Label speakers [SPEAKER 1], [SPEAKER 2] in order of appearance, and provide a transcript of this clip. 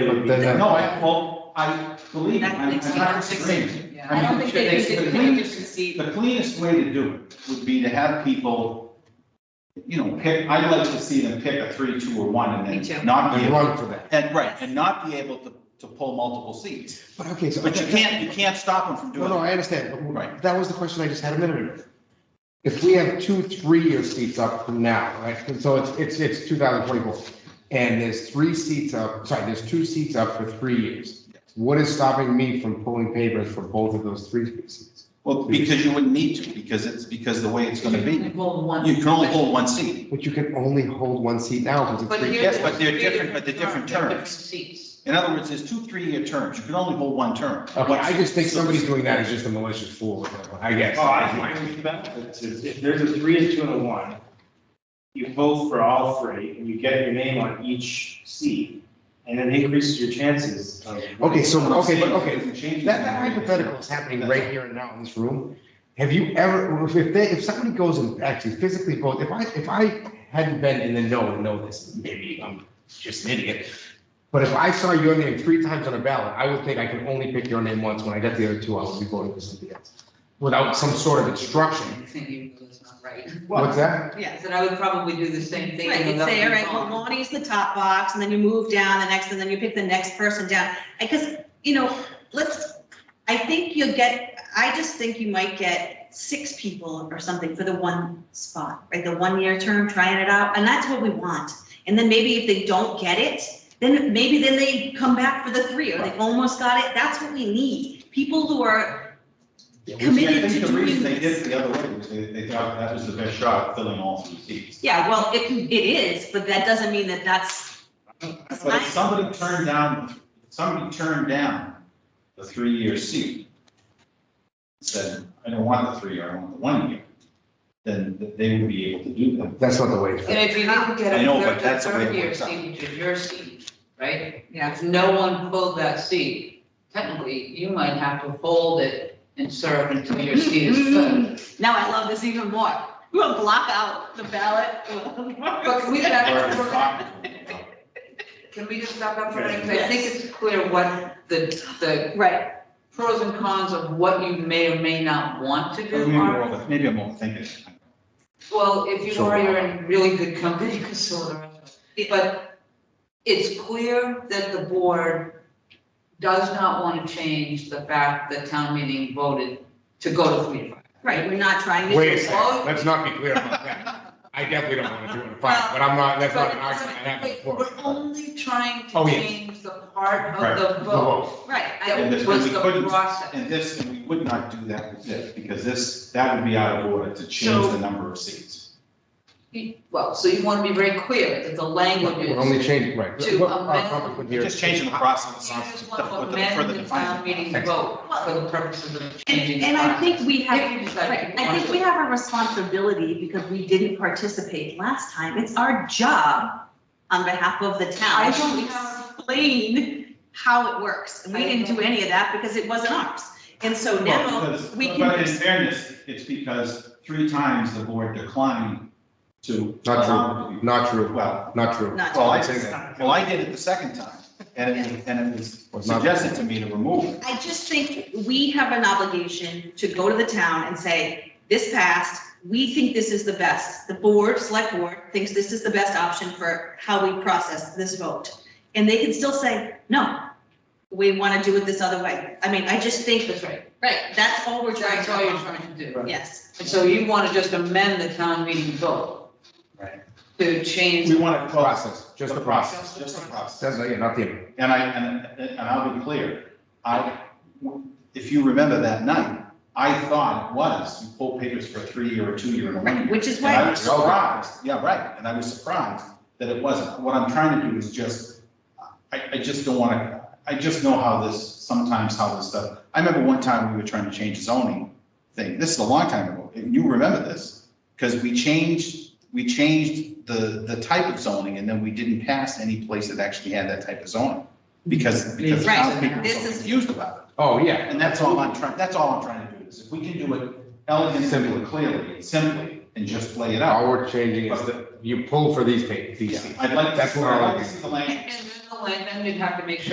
[SPEAKER 1] believe.
[SPEAKER 2] Then I-
[SPEAKER 1] No, I, well, I believe,
[SPEAKER 3] That
[SPEAKER 1] I'm I'm
[SPEAKER 3] makes me
[SPEAKER 1] not
[SPEAKER 3] nervous.
[SPEAKER 1] extreme.
[SPEAKER 3] Yeah.
[SPEAKER 1] I
[SPEAKER 4] I
[SPEAKER 1] mean,
[SPEAKER 4] don't think they
[SPEAKER 1] it's
[SPEAKER 4] use it, they
[SPEAKER 1] the
[SPEAKER 4] don't
[SPEAKER 1] cleanest-
[SPEAKER 4] use the seat.
[SPEAKER 1] The cleanest way to do it would be to have people, you know, pick, I'd like to see them pick a three, two, or one,
[SPEAKER 3] Me
[SPEAKER 1] and
[SPEAKER 3] too.
[SPEAKER 1] then not be
[SPEAKER 2] And
[SPEAKER 1] able,
[SPEAKER 2] run for that.
[SPEAKER 1] and, right, and not be able to, to pull multiple seats.
[SPEAKER 2] But okay, so.
[SPEAKER 1] But you can't, you can't stop them from
[SPEAKER 2] No,
[SPEAKER 1] doing
[SPEAKER 2] no,
[SPEAKER 1] it.
[SPEAKER 2] I understand. but w-
[SPEAKER 1] Right.
[SPEAKER 2] That was the question I just had a minute ago. If we have two three-year seats up from now, right, and so it's, it's, it's two thousand twenty-four, and there's three seats up, sorry, there's two seats up for three years. What is stopping me from pulling papers for both of those three seats?
[SPEAKER 1] Well, because you wouldn't need to, because it's, because the way it's gonna be, you
[SPEAKER 4] Well, one.
[SPEAKER 1] can only hold one seat.
[SPEAKER 2] But you can only hold one seat now because it's
[SPEAKER 4] But
[SPEAKER 2] three.
[SPEAKER 4] here
[SPEAKER 1] Yes,
[SPEAKER 4] there's
[SPEAKER 1] but they're
[SPEAKER 4] three
[SPEAKER 1] different- but they're different
[SPEAKER 4] they're different
[SPEAKER 1] terms.
[SPEAKER 4] Seats.
[SPEAKER 1] In other words, there's two three-year terms, you can only hold one term.
[SPEAKER 2] Okay, I just think somebody's doing that is just a malicious fool, with that one, I guess.
[SPEAKER 5] Oh, I agree with you about that. If if there's a three and two and a one, you vote for all three and you get your name on each seat, and it increases your chances of.
[SPEAKER 2] Okay, so, okay, but, okay,
[SPEAKER 1] okay.
[SPEAKER 2] That, that hypothetical is happening right here and now in this room. Have you ever, if if they, if somebody goes and actually physically votes, if I, if I hadn't been in the know and know this, maybe I'm just an idiot. But if I saw your name three times on a ballot, I would think I can only pick your name once. When I got the other two, I would be voting for somebody else. Without some sort of instruction.
[SPEAKER 4] I think you know that's not right.
[SPEAKER 2] What's that?
[SPEAKER 3] Yeah.
[SPEAKER 4] Yes, and I would probably do the same thing.
[SPEAKER 3] Right,
[SPEAKER 4] and
[SPEAKER 3] you'd
[SPEAKER 4] that
[SPEAKER 3] say, all
[SPEAKER 4] would be
[SPEAKER 3] right, well,
[SPEAKER 4] fine.
[SPEAKER 3] Lonnie's the top box, and then you move down the next, and then you pick the next person down. Because, you know, let's, I think you'll get, I just think you might get six people or something for the one spot, right? The one-year term, trying it out, and that's what we want. And then maybe if they don't get it, then maybe then they come back for the three, or they almost got it. That's what we need. People who are, committed
[SPEAKER 1] I
[SPEAKER 3] to
[SPEAKER 1] think the
[SPEAKER 3] doing
[SPEAKER 1] reason they
[SPEAKER 3] this.
[SPEAKER 1] did it the other way was they, they thought that was the best shot at filling all three seats.
[SPEAKER 3] yeah, well, it, it is, but that doesn't mean that that's.
[SPEAKER 1] But if somebody turned down, if somebody turned down the three-year seat, said, I don't want the three-year, I want the one-year, then th- they would be able to do that.
[SPEAKER 2] That's not the way. it's
[SPEAKER 4] And if you didn't get
[SPEAKER 1] I
[SPEAKER 4] a
[SPEAKER 1] know,
[SPEAKER 4] third,
[SPEAKER 1] but
[SPEAKER 4] the
[SPEAKER 1] that's the way it
[SPEAKER 4] third year
[SPEAKER 1] works out.
[SPEAKER 4] seat, which is your seat, right?
[SPEAKER 3] Yeah.
[SPEAKER 4] If no one pulled that seat, technically, you might have to hold it and serve until your seat is filled.
[SPEAKER 3] Mm-hmm. Now I love this even more. We'll block out the ballot.
[SPEAKER 4] But we
[SPEAKER 1] Or
[SPEAKER 4] have,
[SPEAKER 1] if
[SPEAKER 4] we're
[SPEAKER 1] it's
[SPEAKER 4] gonna-
[SPEAKER 1] not,
[SPEAKER 4] can we just stop up for a minute? 'Cause I think it's clear what the, the
[SPEAKER 3] Right,
[SPEAKER 4] pros and cons of what you may or may not want to
[SPEAKER 1] Maybe
[SPEAKER 4] do
[SPEAKER 1] I'm
[SPEAKER 4] are.
[SPEAKER 1] over- maybe I'm overthinking. it.
[SPEAKER 4] Well, if you
[SPEAKER 2] Sure.
[SPEAKER 4] are, you're in really good company, you can sort of. But it's clear that the board does not want to change the fact that town meeting voted to go to three to five.
[SPEAKER 3] right, we're not trying to.
[SPEAKER 2] Wait a second, let's not be clear about that. I definitely don't want to do it in five, but I'm not, that's not an argument. I have
[SPEAKER 4] But
[SPEAKER 2] before.
[SPEAKER 4] We're only trying
[SPEAKER 2] Oh,
[SPEAKER 4] to
[SPEAKER 2] yeah.
[SPEAKER 4] change the part
[SPEAKER 1] Right.
[SPEAKER 4] of the
[SPEAKER 2] The
[SPEAKER 4] vote
[SPEAKER 2] vote.
[SPEAKER 3] Right, I,
[SPEAKER 1] Yeah. And
[SPEAKER 4] that
[SPEAKER 1] this-
[SPEAKER 4] was
[SPEAKER 1] we
[SPEAKER 4] the
[SPEAKER 1] couldn't-
[SPEAKER 4] process.
[SPEAKER 1] And this, and we would not do that with this, because this, that would be out of order to change the number of seats.
[SPEAKER 4] Well, so you want to be very clear that the language
[SPEAKER 2] We're
[SPEAKER 4] is.
[SPEAKER 2] only changing, right.
[SPEAKER 4] To
[SPEAKER 2] What-
[SPEAKER 4] amend-
[SPEAKER 2] our topic would here-
[SPEAKER 1] Just changing the process.
[SPEAKER 4] You just
[SPEAKER 1] for
[SPEAKER 4] want to
[SPEAKER 1] the- for the
[SPEAKER 4] amend the town
[SPEAKER 1] defining.
[SPEAKER 4] meeting
[SPEAKER 2] Thanks.
[SPEAKER 4] vote for the purposes of changing.
[SPEAKER 3] and
[SPEAKER 4] the
[SPEAKER 3] and I
[SPEAKER 4] process.
[SPEAKER 3] think we have,
[SPEAKER 4] If you decide to
[SPEAKER 3] right,
[SPEAKER 4] do
[SPEAKER 3] I think
[SPEAKER 4] it.
[SPEAKER 3] we have a responsibility because we didn't participate last time. It's our job on behalf of the town.
[SPEAKER 4] I don't have-
[SPEAKER 3] Explain how it works. And we didn't do any of that because it wasn't ours. And so
[SPEAKER 1] Well,
[SPEAKER 3] now
[SPEAKER 1] because-
[SPEAKER 3] we can.
[SPEAKER 1] But in fairness, it's because three times the board declined to.
[SPEAKER 2] Not
[SPEAKER 1] allow it to
[SPEAKER 2] true,
[SPEAKER 1] be-
[SPEAKER 2] not true,
[SPEAKER 1] Well,
[SPEAKER 2] not true.
[SPEAKER 3] Not
[SPEAKER 1] well, I,
[SPEAKER 2] I'd say that.
[SPEAKER 1] well, I did it the second time, and it, and it was
[SPEAKER 2] Was not-
[SPEAKER 1] suggested to me to remove it.
[SPEAKER 3] I just think we have an obligation to go to the town and say, this passed, we think this is the best. The board, select board, thinks this is the best option for how we process this vote. And they can still say, no, we want to do it this other way. I mean, I just think,
[SPEAKER 4] That's right,
[SPEAKER 3] right, that's all we're trying
[SPEAKER 4] that's all you're
[SPEAKER 3] to,
[SPEAKER 4] trying to do.
[SPEAKER 3] yes.
[SPEAKER 4] And so you want to just amend the town meeting vote.
[SPEAKER 1] Right.
[SPEAKER 4] To change.
[SPEAKER 1] We want to close
[SPEAKER 2] Process, just the process.
[SPEAKER 1] Just the
[SPEAKER 2] That's,
[SPEAKER 1] process.
[SPEAKER 2] yeah, not the amendment.
[SPEAKER 1] And I, and, and I'll be clear, I, if you remember that night, I thought it was, you pull papers for a three-year or two-year and a one-year.
[SPEAKER 3] Right, Which is
[SPEAKER 1] And I
[SPEAKER 3] why,
[SPEAKER 1] was surprised, yeah, right, and I was surprised that it wasn't. What I'm trying to do is just, I, I just don't want to, I just know how this, sometimes how this stuff, I remember one time we were trying to change zoning thing, this is a long time ago, and you remember this, because we changed, we changed the, the type of zoning, and then we didn't pass any place that actually had that type of zoning, because, because
[SPEAKER 3] Right,
[SPEAKER 1] townspeople were
[SPEAKER 3] this
[SPEAKER 1] so
[SPEAKER 3] is-
[SPEAKER 1] confused about it.
[SPEAKER 2] Oh, yeah.
[SPEAKER 1] And that's all I'm trying, that's all I'm trying to do, is if we can do it elegantly,
[SPEAKER 2] Simply.
[SPEAKER 1] and clearly, and simply, and just lay it out.
[SPEAKER 2] All we're changing is that you pull for these papers, these
[SPEAKER 1] Yeah,
[SPEAKER 2] seats.
[SPEAKER 1] I'd like to,
[SPEAKER 2] That's what I
[SPEAKER 1] I'd like
[SPEAKER 2] like.
[SPEAKER 1] to see the language.
[SPEAKER 4] And then the land, then you'd have to make sure